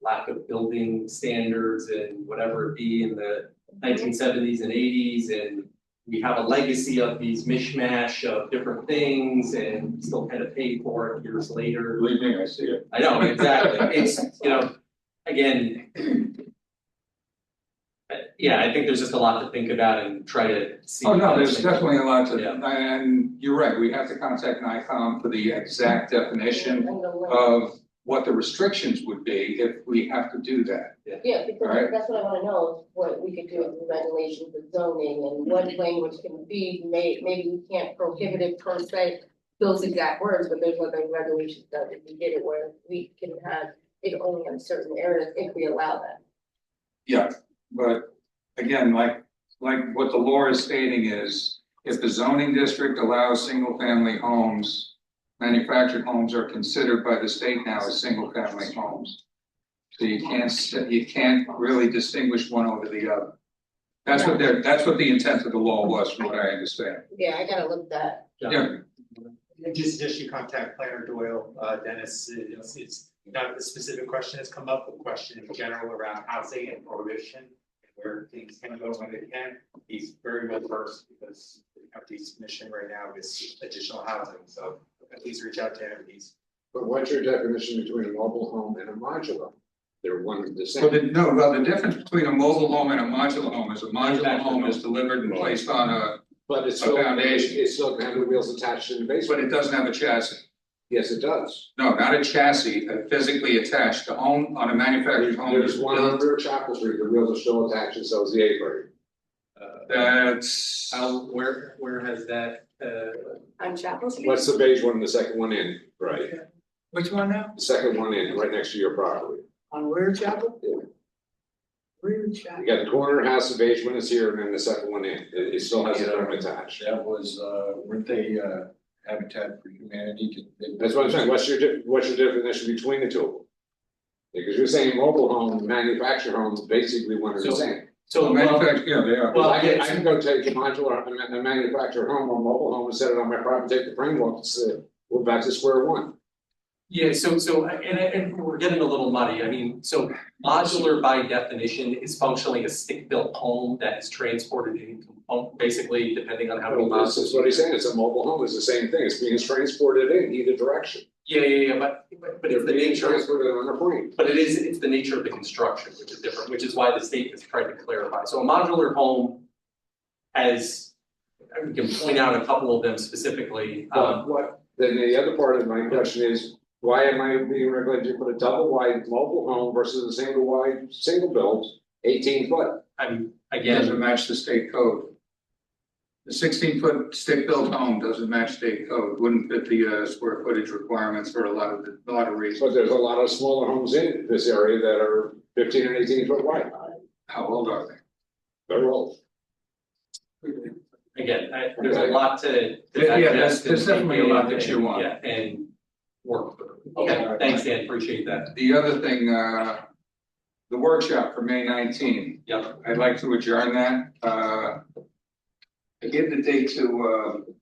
lack of building standards and whatever it be in the nineteen seventies and eighties and we have a legacy of these mishmash of different things and still kind of pay for it years later. Believe me, I see it. I know, exactly, it's, you know, again. uh, Yeah, I think there's just a lot to think about and try to see. Oh, no, there's definitely a lot Yeah. to, and you're right, we have to contact NICOM for the exact definition And the link. of what the restrictions would be if we have to do that. Yeah, because Alright. that's what I wanna know, what we could do with regulations with zoning and what language can be made, maybe we can't prohibit it per se. Those exact words, but there's other regulations that if we did it where we can have it only in certain areas if we allow that. Yeah, but again, like, like what the law is stating is, if the zoning district allows single-family homes, manufactured homes are considered by the state now as single-family homes. So you can't, s- you can't really distinguish one over the other. That's what they're, that's what the intent of the law was, from what I understand. Yeah, I gotta look that, Yeah, And Just, just you contact planner Doyle, uh, Dennis, it's, it's not the specific question has come up, but question in general around housing and prohibition. and Where things can go when they can, he's very well versed because the company's mission right now is additional housing, so please reach out to him, he's. But what's your definition between a mobile home and a modular? They're one and the so the, same. no, well, the difference between a mobile home and a modular home is a modular home is delivered and placed on a, But it's A still, foundation. it's still gonna have the wheels attached in the but basement. it doesn't have a chassis. Yes, it does. No, not a chassis, uh, physically attached, the home on a manufactured home is There's one on built, Rear Chapel Street, the wheels are still attached and so is the apron. that's. How, where, where has that, uh, on Chapel Street. What's the beige one and the second one in? Right. Which one now? The second one in, right next to your property. On Rear Chapel? Yeah. Rear You Chapel. got the corner house, the beige one is here and then the second one in. It, it still has a term attached. That was, uh, weren't they, uh, Habitat for Humanity? Did- That's what I'm saying. What's your, di- what's your definition between the two? Because you're saying mobile home, manufactured home, is basically one and the So- same. so, well, Manufactured, yeah, they are. Well, I can, it's- I can go take a modular, a ma- a manufactured home or mobile home and set it on my property, take the framework, and say, uh, we're back to square one. yeah, so, so, uh, and, and we're getting a little muddy, I mean, so modular by definition is functionally a stick-built home that is transported in, compo- basically, depending on how many Well, miles. This is what he's saying, it's a mobile home, it's the same thing, it's being transported in either direction. Yeah, yeah, yeah, but, but- but They're it's the being nature, Transported on a plane. But it is, it's the nature of the construction, which is different, which is why the state has tried to clarify. So a modular home has, we can point out a couple of them specifically. Um, But what, then the other part of my question is, why am I being regulated to put a double wide mobile home versus a single wide, single build, eighteen foot? I'm, again, Doesn't match the state code. The sixteen foot stick built home doesn't match state code, wouldn't fit the uh square footage requirements for a lot of the, a lot of reasons. But there's a lot of smaller homes in this area that are fifteen and eighteen foot wide, How old are they? they're old. again, I, there's a lot to. to Yeah, digest yeah, that's- there's and- definitely a lot that you want. Yeah, and work through. Okay, thanks, Dan, appreciate that. The other thing, uh, the workshop for May nineteenth. Yep, I'd like to adjourn that, uh. I give the date to, uh.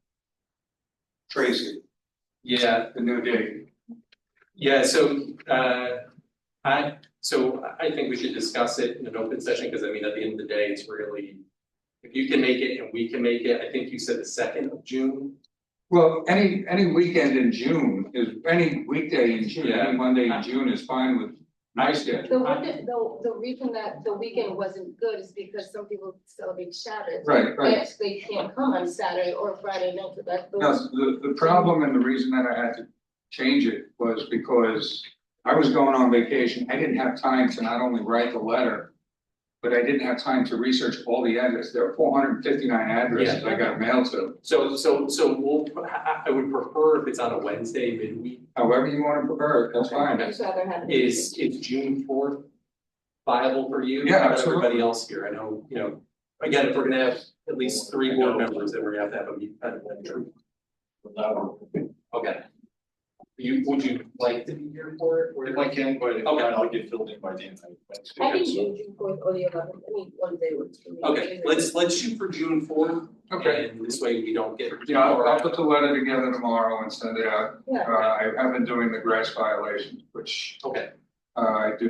Tracy, yeah, the new date. Yeah, so, uh, I, so I think we should discuss it in an open session, because I mean, at the end of the day, it's really, if you can make it and we can make it, I think you said the second of June. Well, any, any weekend in June is, any weekday in June, Yeah. any Monday in June is fine with my The schedule. one that, the, the reason that the weekend wasn't good is because some people celebrate Shabbat. Right, But right. actually can't come on Saturday or Friday night, so that's the. No, the, the problem and the reason that I had to change it was because I was going on vacation. I didn't have time to not only write the letter, but I didn't have time to research all the addresses. There are four hundred and fifty-nine addresses I got mailed to. So, so, so we'll, I, I would prefer if it's on a Wednesday midweek, However you want to prefer, it, that's fine. I'd rather have. it- is, is June fourth viable for you? Yeah, How about absolutely. Everybody else here, I know, you know, again, if we're gonna have at least three board members, then we're gonna have to have a meet, a- a- Without- okay. You, would you like to be here for it? If I can, but if not, Okay. I'll get filled in by the end of Wednesday. I think so- June fourth or the eleventh, I mean, one day works for me. Okay, let's, let's shoot for June fourth, and this way we don't get. Yeah, I'll, I'll put the letter together tomorrow and send it out. Yeah. Uh, I have been doing the grass violations, which Okay. uh, I do